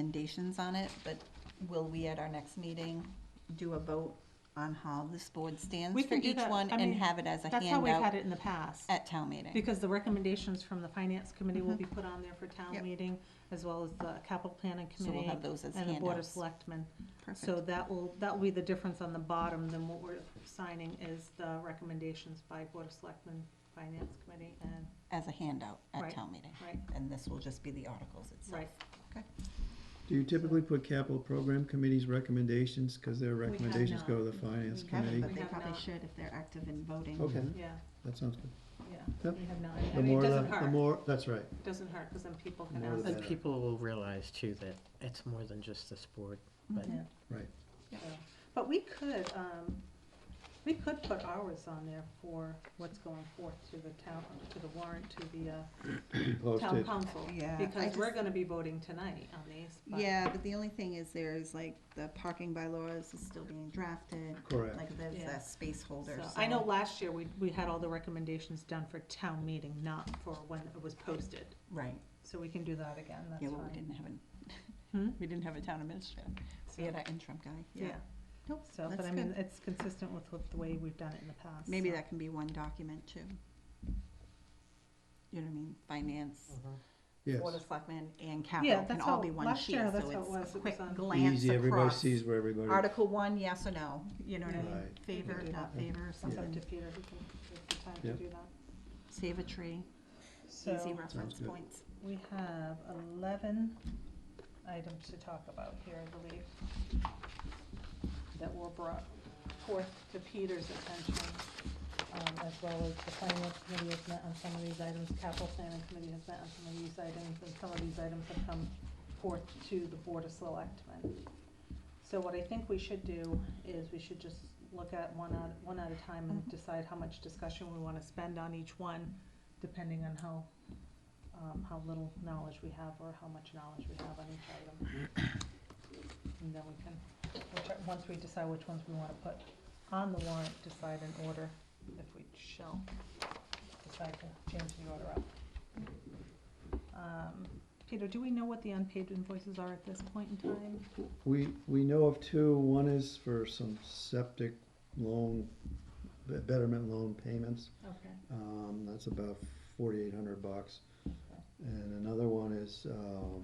recommendations on it, but will we at our next meeting do a vote on how this board stands We for can do each that. one I and mean, have it as a That's how we've had handout Uh, it in the past, at town meeting? because the recommendations from the finance committee will be put on there for Mm-hmm. Yep. town meeting, as well as the capital planning So we'll committee have those as and the board of handouts. selectmen. So Perfect. that will, that will be the difference on the bottom than what we're signing is the recommendations by board of selectmen, finance committee, and, As a handout at Right. town meeting. right, And this will just be the articles itself. right. Do you typically put capital program committee's recommendations, because their have recommendations not. go to the finance We haven't, committee? but- We have not. should if they're active in voting. Okay, Yeah, that sounds good. yeah, Yep. we have not, I The mean, it more, doesn't the- the hurt, more, that's right. doesn't hurt, because then people can More the ask. And better. people will realize too that it's more than just the sport, but Mhm. Yeah. But we could, um, we could put ours on there for what's going forth to the town, to the warrant, to the, uh, Be town Posted. council. Yeah, I Because we're just- gonna be voting tonight on these, but. Yeah, but the only thing is there is like the parking bylaws is still being drafted, Correct. like there's Yeah. that space holder, so- so. I know last year, we, we had all the recommendations done for town meeting, not for when it was posted, Right, so we can do that again, that's yeah, well, we fine. didn't have an, Hmm? we didn't have a town administrator. So- We had our interim guy, yeah. Yeah, Nope, so, but that's I mean, good. it's consistent with, with the way we've done it in the past. Maybe so. that can be one document too. You know what I mean, finance, Yes. Board of Selectmen and Yeah, capital can that's all how- be one last sheet, year, that's so how it was, it it's a was quick on- glance Easy, everybody across. sees where everybody, Article one, yes or no, you know what I mean, Right. favor, Yeah. not favor, It's up to something, Peter, who can, take the time to Yep. do that. save a tree, easy So, reference good. points. we have eleven items to talk about here, I believe, that were brought forth to Peter's attention, um, as well as the finance committee has met on some of these items, capital planning committee has met on some of these items, and some of these items have come forth to the board of selectmen. So what I think we should do is we should just look at one at, one at a time and Mhm. decide how much discussion we wanna spend on each one, depending on how, um, how little knowledge we have or how much knowledge we have on each item. And then we can, which are- once we decide which ones we wanna put on the warrant, decide in order, if we shall decide to change the order up. Um, Peter, do we know what the unpaid invoices are at this point in time? we, we know of two, one is for some septic loan, be- betterment loan payments. Okay. Um, that's about forty-eight hundred bucks. And another one is, um,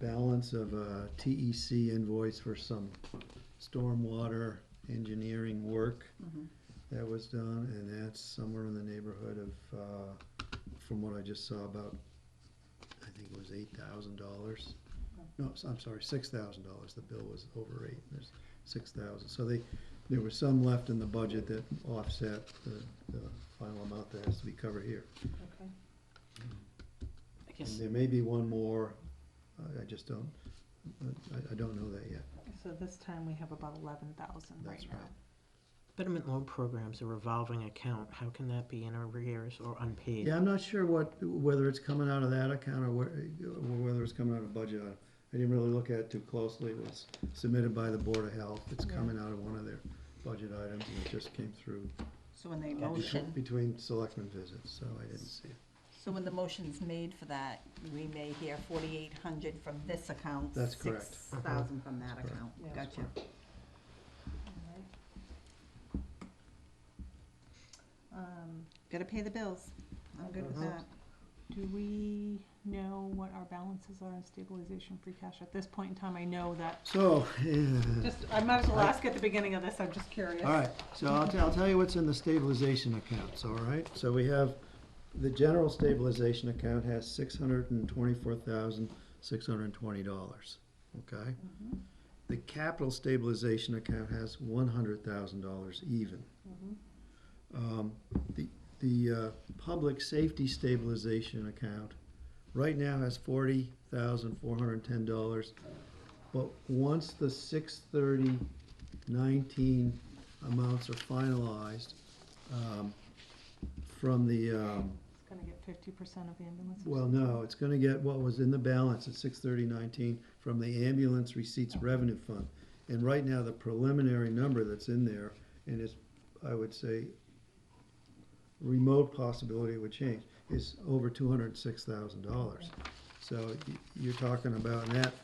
balance of a TEC invoice for some stormwater engineering work Mhm. that was done, and that's somewhere in the neighborhood of, uh, from what I just saw, about, I think it was eight thousand dollars. No, s- I'm sorry, six thousand dollars, the bill was over eight, there's six thousand, so they, there was some left in the budget that offset the, the final amount that has to be covered here. Okay. I And guess there may be one more, I, I just don't, I, I don't know that yet, So this time we have about eleven thousand right that's now. right. betterment loan program's a revolving account. How can that be in arrears or unpaid? Yeah, I'm not sure what, whether it's coming out of that account or where, or whether it's coming out of budget. I didn't really look at it too closely. It was submitted by the Board of Health. It's Yeah. coming out of one of their budget items and it just came through So when they uh, between, motion, between selectmen visits, so I didn't see it. so when the motion's made for that, we may hear forty-eight hundred from this account. That's correct. Six thousand from that That's correct. account, Yeah. gotcha. Alright. Um, Gotta pay the bills, I'm good with Uh-huh. Mhm. that. do we know what our balances are in stabilization free cash at this point in time? I know that, So, yeah. just, I might as well ask at the beginning of this, I'm just curious. all right, so I'll, t- I'll tell you what's in the stabilization accounts, all right? So we have, the general stabilization account has six hundred and twenty-four thousand, six hundred and twenty dollars, okay? Mhm, The capital stabilization account has one hundred thousand dollars even. mhm. Um, the, the, uh, public safety stabilization account right now has forty thousand four hundred and ten dollars. But once the six thirty nineteen amounts are finalized, um, from the, um, It's gonna get fifty percent of ambulances. well, no, it's gonna get what was in the balance at six thirty nineteen from the ambulance receipts revenue fund. And right now, the preliminary number that's in there, and it's, I would say, remote possibility it would change, is over two hundred and six thousand dollars. So y- you're talking about, and that